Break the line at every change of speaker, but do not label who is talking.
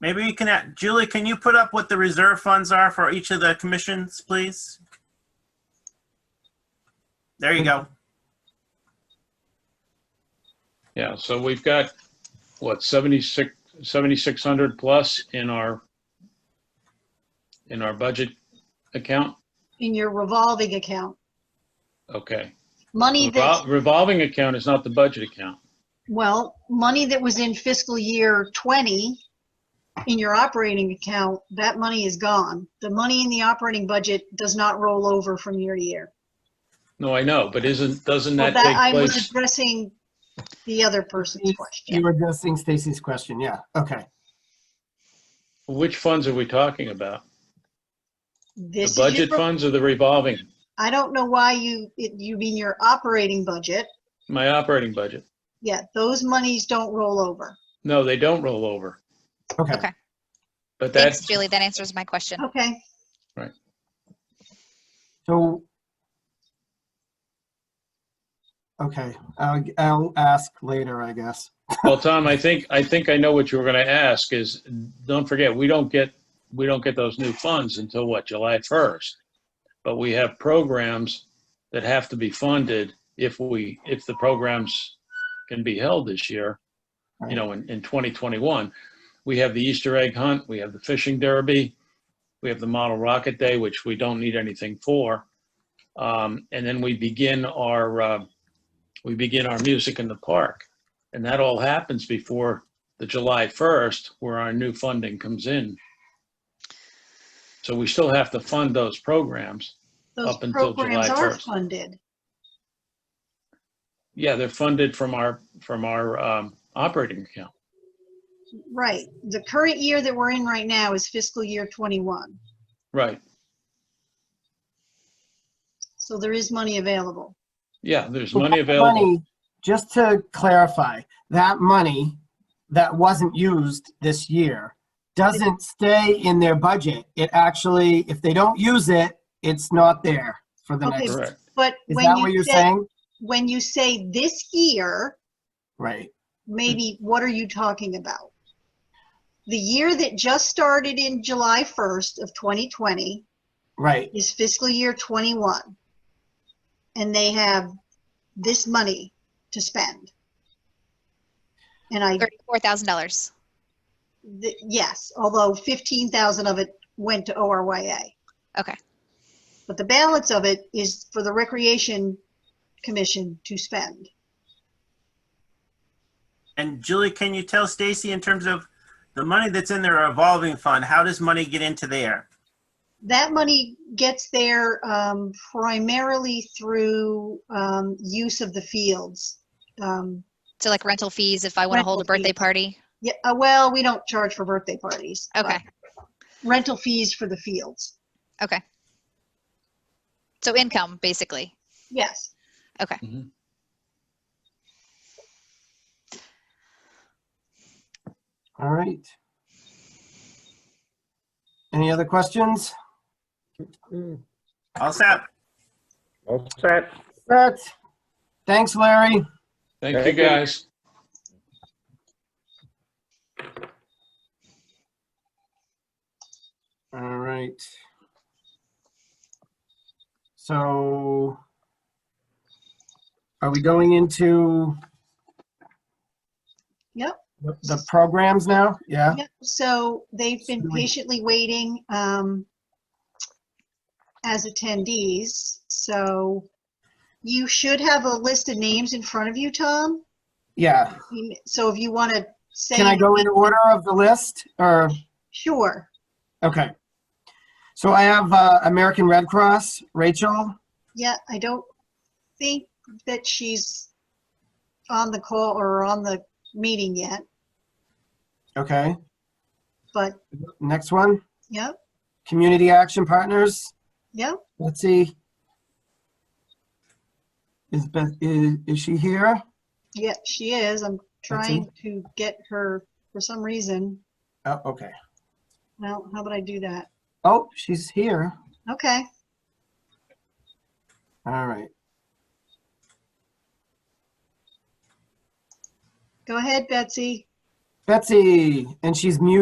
Maybe you can, add- Julie, can you put up what the reserve funds are for each of the commissions, please? There you go.
Yeah, so we've got, what, 76, 7,600 plus in our, in our budget account?
in your revolving account.
Okay.
Money that,
Revol- Revolving account is not the budget account.
well, money that was in fiscal year 20 in your operating account, that money is gone. The money in the operating budget does not roll over from year to year.
No, I know, but isn't, doesn't
Well,
that
that, I
take
was
place?
addressing the other person's
You
question.
were addressing Stacy's question, yeah, okay.
Which funds are we talking about? The
This is your,
budget
pro-
funds or the revolving?
I don't know why you, it- you mean your operating budget.
My operating budget?
Yeah, those monies don't roll over.
No, they don't roll over,
Okay,
Okay,
but
thanks,
that's,
Julie. That answers my question.
Okay,
so. Okay, I'll, I'll ask later, I guess.
well, Tom, I think, I think I know what you were going to ask is, don't forget, we don't get, we don't get those new funds until what, July 1st? But we have programs that have to be funded if we, if the programs can be held this year, you know, in, in 2021. We have the Easter egg hunt, we have the fishing derby, we have the model rocket day, which we don't need anything for. Um, And then we begin our, uh, we begin our music in the park. And that all happens before the July 1st, where our new funding comes in. So we still have to fund those programs.
those
Up until
programs
July
are
1st.
funded.
Yeah, they're funded from our, from our um, operating account.
Right. The current year that we're in right now is fiscal year 21.
Right.
So there is money available.
Yeah, there's
But
money
that
available.
money- Just to clarify, that money that wasn't used this year doesn't stay in their budget. It actually, if they don't use it, it's not there for the
Okay.
next.
Correct.
But
Is
when
that
you
what you're
say-
saying?
When you say this year,
Right,
maybe what are you talking about? The year that just started in July 1st of 2020
right.
is fiscal year 21. And they have this money to spend. And I,
Thirty-four thousand dollars.
th- yes, although 15,000 of it went to ORYA.
Okay.
But the balance of it is for the Recreation Commission to spend.
And Julie, can you tell Stacy in terms of the money that's in their revolving fund, how does money get into there?
That money gets there um, primarily through um, use of the fields. Um,
So like rental fees if I want to hold a
Rental fees.
birthday party.
Yeah, uh, well, we don't charge for birthday parties. but
Okay,
Rental fees for the fields,
okay. So income, basically.
yes.
Mhm.
All right. Any other questions?
All set?
All set.
Brett? Thanks, Larry.
Thank you,
Thank you.
guys.
All right. So are we going into
Yep.
the the programs now? Yeah?
Yep, So they've been
So we-
patiently waiting um, as attendees. So you should have a list of names in front of you, Tom.
Yeah.
So if you want to say.
Can I go in order of the list or?
Sure.
Okay. So I have uh, American Red Cross, Rachel.
Yeah, I don't think that she's on the call or on the meeting yet,
Okay.
but
Next one,
yep,
Community Action Partners,
yep.
Let's see. Is Beth, is, is she here?
Yeah, she is. I'm trying to get her for some reason.
Oh, okay.
Well, how about I do that?
Oh, she's here.
Okay,
All right.
go ahead, Betsy.
Betsy, and she's muted.